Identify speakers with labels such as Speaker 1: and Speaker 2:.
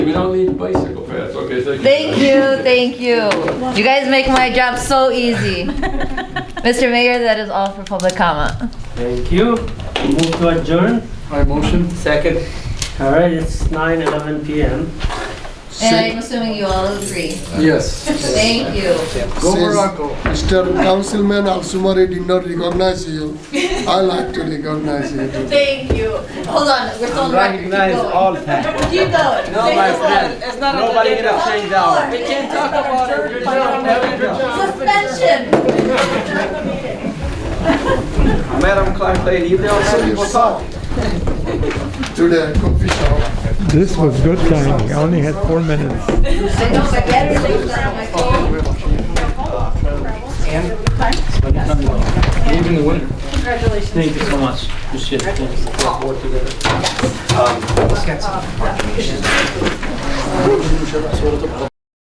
Speaker 1: we don't need bicycle paths, okay, thank you.
Speaker 2: Thank you, thank you. You guys make my job so easy. Mr. Mayor, that is all for public comment.
Speaker 3: Thank you. Move to adjourn.
Speaker 4: My motion?
Speaker 5: Second.
Speaker 3: All right, it's 9:11 PM.
Speaker 2: And
Speaker 4: Say-
Speaker 2: I'm assuming you all agree.
Speaker 4: Yes.
Speaker 2: Thank you.
Speaker 4: Go
Speaker 6: Says-
Speaker 4: Morocco.
Speaker 6: Mr. Councilman Alsumari did not recognize you. I like to recognize you. too.
Speaker 2: Thank you. Hold on, we're still on record. Keep
Speaker 5: Recognize all
Speaker 2: going.
Speaker 5: time.
Speaker 2: Keep going.
Speaker 5: No, my friend.
Speaker 7: It's not a
Speaker 5: Nobody
Speaker 7: good
Speaker 5: gonna change that. We can't talk about it. Good job. Have a good job.
Speaker 2: Suspension.
Speaker 5: Madam Clerk, lady, you don't see people talk.
Speaker 6: Today, coffee shop.
Speaker 8: This was good timing. I only had four minutes.
Speaker 2: I know my battery's not on my phone.
Speaker 4: Even the winner.
Speaker 3: Thank you so much. Appreciate it.